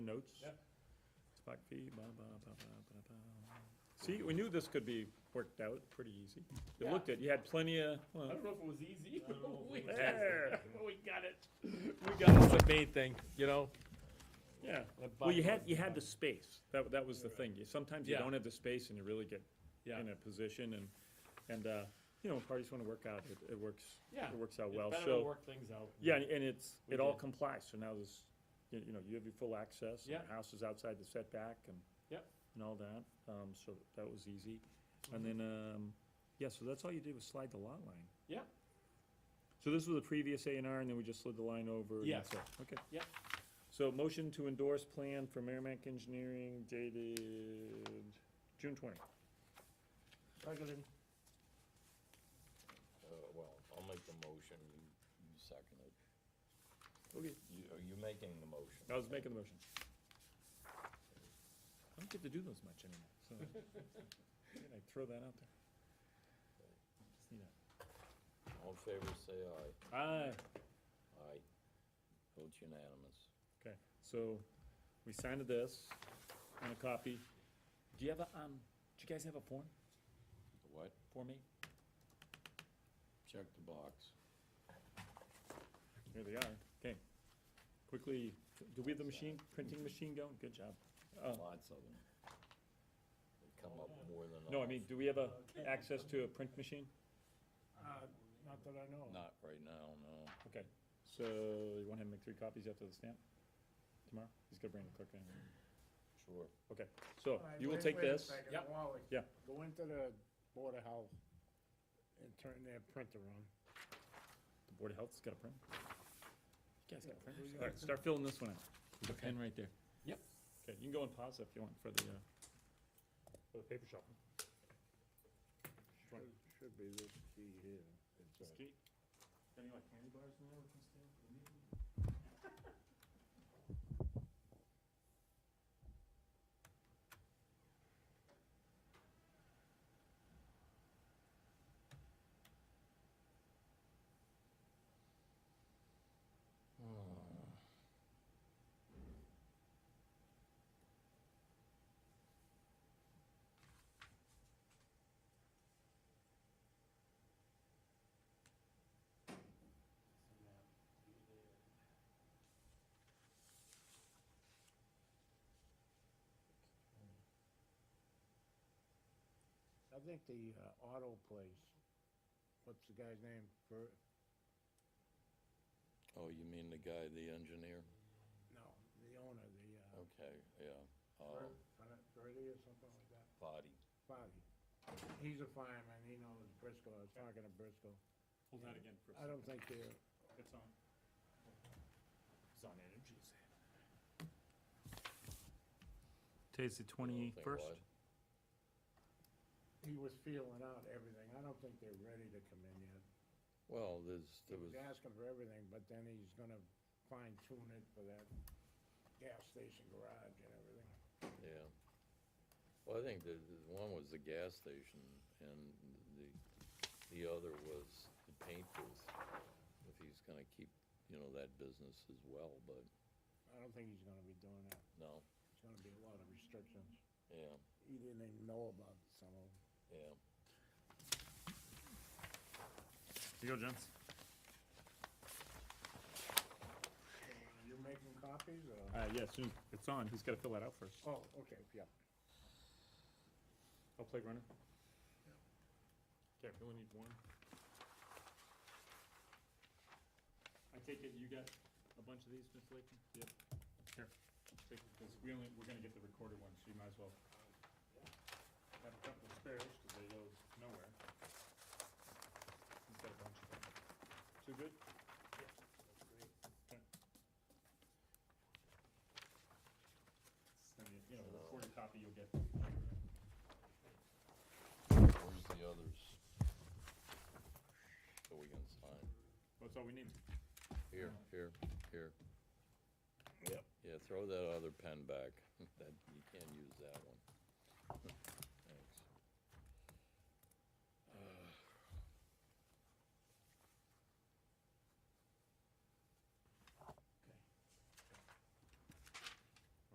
notes. Yep. Spot fee, ba, ba, ba, ba, ba, ba. See, we knew this could be worked out pretty easy. It Yeah. looked at, you had plenty of, I well, don't know if it was easy. We There. we got it. We got it. That's the main thing, you know? yeah. that Well, you button had, was you had done. the space. That, that was the thing. You- Sometimes you Yeah. don't have the space and you really get Yeah. in a position and, and, uh, you know, when parties wanna work out, it, it works, Yeah. it works out It's uh, well, so. better to work things out. Yeah, and and it's, We it all did. complies, so now there's, you you know, you have your full access, and Yeah. the house is outside the setback and. Yep. And all that, um, so that was easy, and Mm-hmm. then, um, yeah, so that's all you did was slide the lot line. Yep. So this was the previous A and R, and then we just slid the line over. and Yes. that's it. Okay. Yep. So motion to endorse plan for Merrimack Engineering dated June twenty. Uh, well, I'll make the motion, you, you second it. Okay. You, are you making the motion? I was making the motion. I don't get to do those much anymore, so I throw that out there. Just need a- ah, All in favor, say aye. Aye, Aye. Vote unanimous. okay, so we signed this on a copy. Do you have a, um, do you guys have a form What? for me? Check the box. Here they are, okay. Quickly, do we have the machine, printing machine going? Good job. Uh, Lots of them. They come up more than No, I others. mean, do we have a, access to a print machine? Not that I know Not right now, no. Okay, so you want him to make three copies after the stamp tomorrow? He's gonna bring the clerk in. Sure. Okay, so All right, you will wait- take wait a this. second, Yep. Wally. Yeah. Go into the Board of Health and turn their printer on. The Board of Health's got a print. You guys got Yeah, printers? we All right, got- start filling this one out. There's a pen right there. Yep. Okay, you can go and pause if you want for the, uh, for the paper shop. Should- Should be this key here. It's, uh, Any like candy bars in there we can steal? uh, I think the uh, auto place, what's the guy's name? Ver- Oh, you mean the guy, the engineer? No, the owner, the, uh, Okay, yeah. Oh. Uh, Ver- Ver- Verdi or something like that, body. Bobby. He's a fireman, he knows Briscoe, I was talking to Briscoe. Hold that again for a I don't think they're, second. It's on. It's on energy saving. Today's the Think twenty-first? what? he was feeling out everything, I don't think they're ready to come in yet. Well, there's, He there was, was asking for everything, but then he's gonna fine tune it for that gas station garage and everything. yeah. Well, I think the, the one was the gas station and the, the other was the paint booth. If he's gonna keep, you know, that business as well, but I don't think he's gonna be doing that. no, It's gonna be a lot of restrictions. yeah, He didn't even know about some of them. yeah. Here you go, gents. You making copies or? Uh, yeah, as soon as it's on, he's gotta fill that out first. Oh, okay, yeah. I'll play runner. Okay, we only need one. I take it you got a bunch of these, Ms. Lakin? Yep. Here, take it, 'cause we only, we're gonna get the recorded one, so you might as well have a couple of spares, cause they go nowhere. He's got a bunch of them. Too good? Yeah. Then you, you know, the recorded copy you'll get. Where's the others? So we can sign. That's all we need. Here, here, here. Yeah, throw that other pen back. That, you can't use that one.